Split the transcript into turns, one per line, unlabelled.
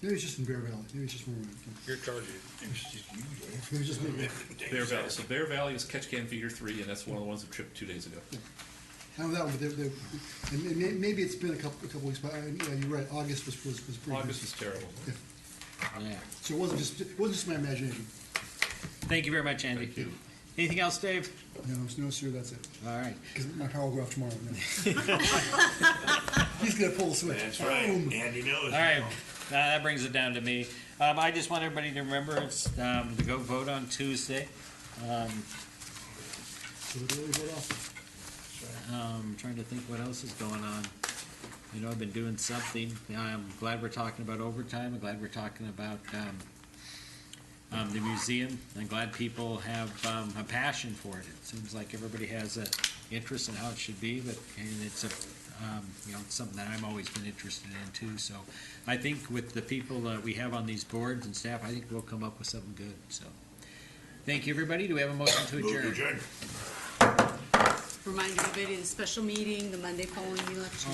Maybe it's just in Bear Valley, maybe it's just more.
You're charging.
Maybe it's just me.
Bear Valley, so Bear Valley is catch can figure three, and that's one of the ones that tripped two days ago.
I know that one, but they- they- and may- may- maybe it's been a couple, a couple weeks, but, uh, yeah, you're right, August was, was, was pretty
August
good.
was terrible.
Yeah.
So it wasn't just, it wasn't just my imagination.
Thank you very much, Andy.
Thank you.
Anything else, Dave?
No, no, sir, that's it.
All right.
Because my power will go off tomorrow. no. He's gonna pull the switch.
That's right,
Boom.
Andy knows.
All right. Uh, that brings it down to me. Um, I just want everybody to remember it's um, to go vote on Tuesday. Um,
So it really went off.
um, trying to think what else is going on. You know, I've been doing something. I'm glad we're talking about overtime. I'm glad we're talking about um, um, the museum. I'm glad people have um, a passion for it. It seems like everybody has an interest in how it should be, but and it's a um, you know it's something that I've always been interested in too. So I think with the people that we have on these boards and staff, I think we'll come up with something good. So thank you, everybody. Do we have a motion to
Move to
adjourn?
adjourn.
Remind everybody of the special meeting, the Monday following the election.